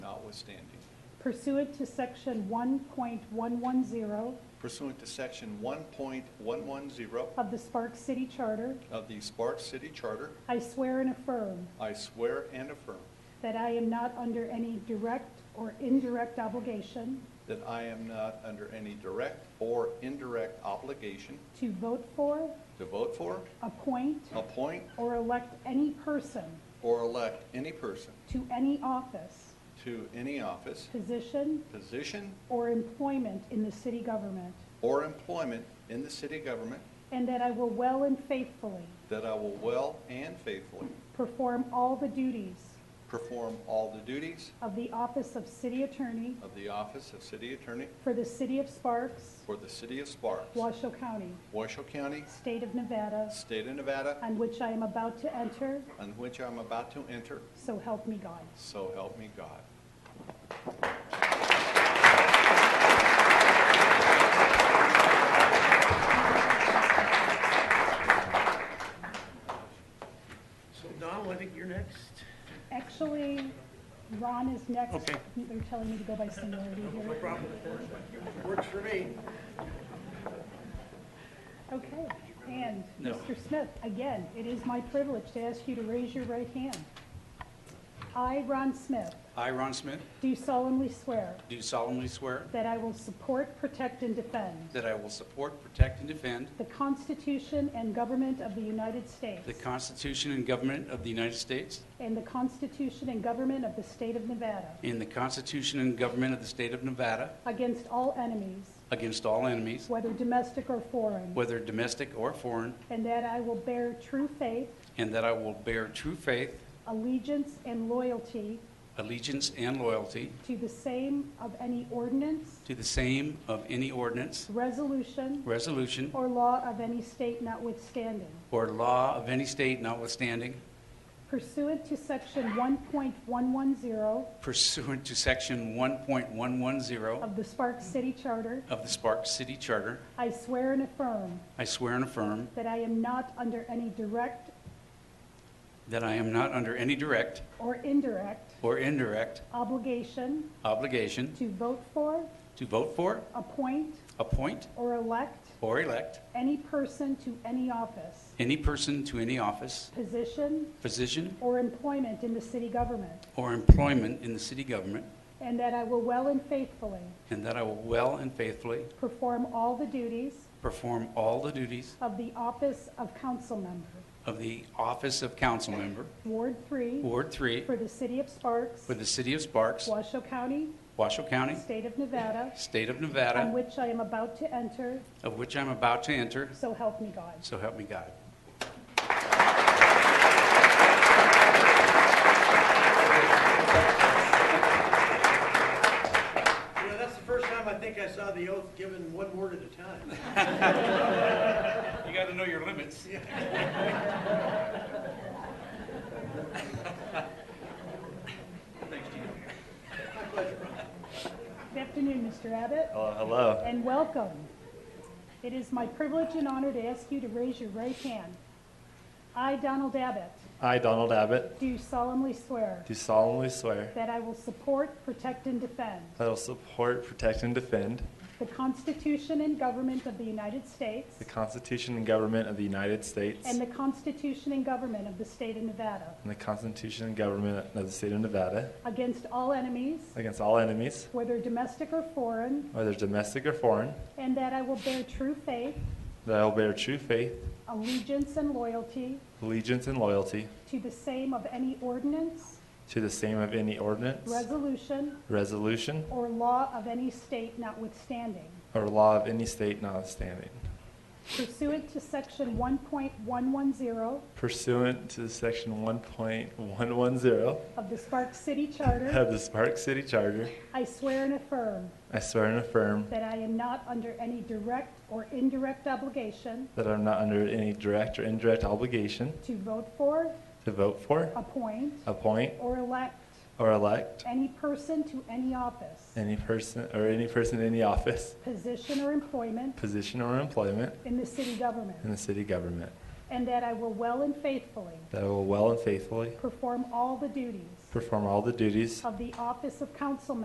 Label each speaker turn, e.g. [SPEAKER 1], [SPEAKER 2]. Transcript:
[SPEAKER 1] notwithstanding,
[SPEAKER 2] pursuant to Section 1.110
[SPEAKER 1] pursuant to Section 1.110
[SPEAKER 2] of the Sparks City Charter,
[SPEAKER 1] of the Sparks City Charter,
[SPEAKER 2] I swear and affirm
[SPEAKER 1] I swear and affirm
[SPEAKER 2] that I am not under any direct or indirect obligation
[SPEAKER 1] that I am not under any direct or indirect obligation
[SPEAKER 2] to vote for,
[SPEAKER 1] to vote for,
[SPEAKER 2] appoint,
[SPEAKER 1] appoint,
[SPEAKER 2] or elect any person
[SPEAKER 1] or elect any person
[SPEAKER 2] to any office,
[SPEAKER 1] to any office,
[SPEAKER 2] position,
[SPEAKER 1] position,
[SPEAKER 2] or employment in the city government,
[SPEAKER 1] or employment in the city government,
[SPEAKER 2] and that I will well and faithfully
[SPEAKER 1] that I will well and faithfully
[SPEAKER 2] perform all the duties
[SPEAKER 1] perform all the duties
[SPEAKER 2] of the office of city attorney
[SPEAKER 1] of the office of city attorney
[SPEAKER 2] for the city of Sparks,
[SPEAKER 1] for the city of Sparks,
[SPEAKER 2] Washoe County,
[SPEAKER 1] Washoe County,
[SPEAKER 2] state of Nevada,
[SPEAKER 1] state of Nevada,
[SPEAKER 2] on which I am about to enter,
[SPEAKER 1] on which I'm about to enter,
[SPEAKER 2] so help me God.
[SPEAKER 1] so help me God.
[SPEAKER 3] So Donald, I think you're next.
[SPEAKER 2] Actually, Ron is next.
[SPEAKER 3] Okay.
[SPEAKER 2] They're telling me to go by seniority
[SPEAKER 3] No
[SPEAKER 2] here.
[SPEAKER 3] problem with that. Works for me.
[SPEAKER 2] Okay, and
[SPEAKER 3] No.
[SPEAKER 2] Mr. Smith, again, it is my privilege to ask you to raise your right hand. I, Ron Smith,
[SPEAKER 4] I, Ron Smith,
[SPEAKER 2] do solemnly swear
[SPEAKER 4] do solemnly swear
[SPEAKER 2] that I will support, protect, and defend
[SPEAKER 4] that I will support, protect, and defend
[SPEAKER 2] the Constitution and government of the United States
[SPEAKER 4] the Constitution and government of the United States
[SPEAKER 2] and the Constitution and government of the state of Nevada
[SPEAKER 4] and the Constitution and government of the state of Nevada
[SPEAKER 2] against all enemies,
[SPEAKER 4] against all enemies,
[SPEAKER 2] whether domestic or foreign,
[SPEAKER 4] whether domestic or foreign,
[SPEAKER 2] and that I will bear true faith,
[SPEAKER 4] and that I will bear true faith,
[SPEAKER 2] allegiance, and loyalty
[SPEAKER 4] allegiance, and loyalty
[SPEAKER 2] to the same of any ordinance,
[SPEAKER 4] to the same of any ordinance,
[SPEAKER 2] resolution,
[SPEAKER 4] resolution,
[SPEAKER 2] or law of any state notwithstanding.
[SPEAKER 4] or law of any state notwithstanding
[SPEAKER 2] Pursuant to Section 1.110
[SPEAKER 4] pursuant to Section 1.110
[SPEAKER 2] of the Sparks City Charter,
[SPEAKER 4] of the Sparks City Charter,
[SPEAKER 2] I swear and affirm
[SPEAKER 4] I swear and affirm
[SPEAKER 2] that I am not under any direct
[SPEAKER 4] that I am not under any direct
[SPEAKER 2] or indirect
[SPEAKER 4] or indirect
[SPEAKER 2] obligation
[SPEAKER 4] obligation
[SPEAKER 2] to vote for,
[SPEAKER 4] to vote for,
[SPEAKER 2] appoint,
[SPEAKER 4] appoint,
[SPEAKER 2] or elect
[SPEAKER 4] or elect
[SPEAKER 2] any person to any office,
[SPEAKER 4] any person to any office,
[SPEAKER 2] position,
[SPEAKER 4] position,
[SPEAKER 2] or employment in the city government,
[SPEAKER 4] or employment in the city government,
[SPEAKER 2] and that I will well and faithfully
[SPEAKER 4] and that I will well and faithfully
[SPEAKER 2] perform all the duties
[SPEAKER 4] perform all the duties
[SPEAKER 2] of the office of council member,
[SPEAKER 4] of the office of council member,
[SPEAKER 2] Ward 3,
[SPEAKER 4] Ward 3,
[SPEAKER 2] for the city of Sparks,
[SPEAKER 4] for the city of Sparks,
[SPEAKER 2] Washoe County,
[SPEAKER 4] Washoe County,
[SPEAKER 2] state of Nevada,
[SPEAKER 4] state of
[SPEAKER 2] on
[SPEAKER 4] Nevada,
[SPEAKER 2] which I am about to enter,
[SPEAKER 4] of which I'm about to enter,
[SPEAKER 2] so help me God.
[SPEAKER 4] so help me God.
[SPEAKER 3] You know, that's the first time I think I saw the oath given one word at a time.
[SPEAKER 4] You got to know your limits.
[SPEAKER 2] Good afternoon, Mr. Abbott.
[SPEAKER 5] Well, hello.
[SPEAKER 2] and welcome. It is my privilege and honor to ask you to raise your right hand. I, Donald Abbott,
[SPEAKER 5] I, Donald Abbott,
[SPEAKER 2] do solemnly swear
[SPEAKER 5] do solemnly swear
[SPEAKER 2] that I will support, protect, and defend
[SPEAKER 5] that I will support, protect, and defend
[SPEAKER 2] the Constitution and government of the United States
[SPEAKER 5] the Constitution and government of the United States
[SPEAKER 2] and the Constitution and government of the state of Nevada
[SPEAKER 5] and the Constitution and government of the state of Nevada
[SPEAKER 2] against all enemies,
[SPEAKER 5] against all enemies,
[SPEAKER 2] whether domestic or foreign,
[SPEAKER 5] whether domestic or foreign,
[SPEAKER 2] and that I will bear true faith,
[SPEAKER 5] that I will bear true faith,
[SPEAKER 2] allegiance, and loyalty
[SPEAKER 5] allegiance, and loyalty
[SPEAKER 2] to the same of any ordinance,
[SPEAKER 5] to the same of any ordinance,
[SPEAKER 2] resolution,
[SPEAKER 5] resolution,
[SPEAKER 2] or law of any state notwithstanding.
[SPEAKER 5] or law of any state notwithstanding,
[SPEAKER 2] Pursuant to Section 1.110
[SPEAKER 5] pursuant to Section 1.110
[SPEAKER 2] of the Sparks City Charter,
[SPEAKER 5] of the Spark City Charter,
[SPEAKER 2] I swear and affirm
[SPEAKER 5] I swear and affirm
[SPEAKER 2] that I am not under any direct or indirect obligation
[SPEAKER 5] that I'm not under any direct or indirect obligation
[SPEAKER 2] to vote for,
[SPEAKER 5] to vote for,
[SPEAKER 2] appoint,
[SPEAKER 5] appoint,
[SPEAKER 2] or elect
[SPEAKER 5] or elect
[SPEAKER 2] any person to any office,
[SPEAKER 5] any person or any person in any office,
[SPEAKER 2] position, or employment
[SPEAKER 5] position, or employment
[SPEAKER 2] in the city
[SPEAKER 5] in
[SPEAKER 2] government,
[SPEAKER 5] the city government,
[SPEAKER 2] and that I will well and faithfully
[SPEAKER 5] that I will well and faithfully
[SPEAKER 2] perform all the duties
[SPEAKER 5] perform all the duties
[SPEAKER 2] of the office of council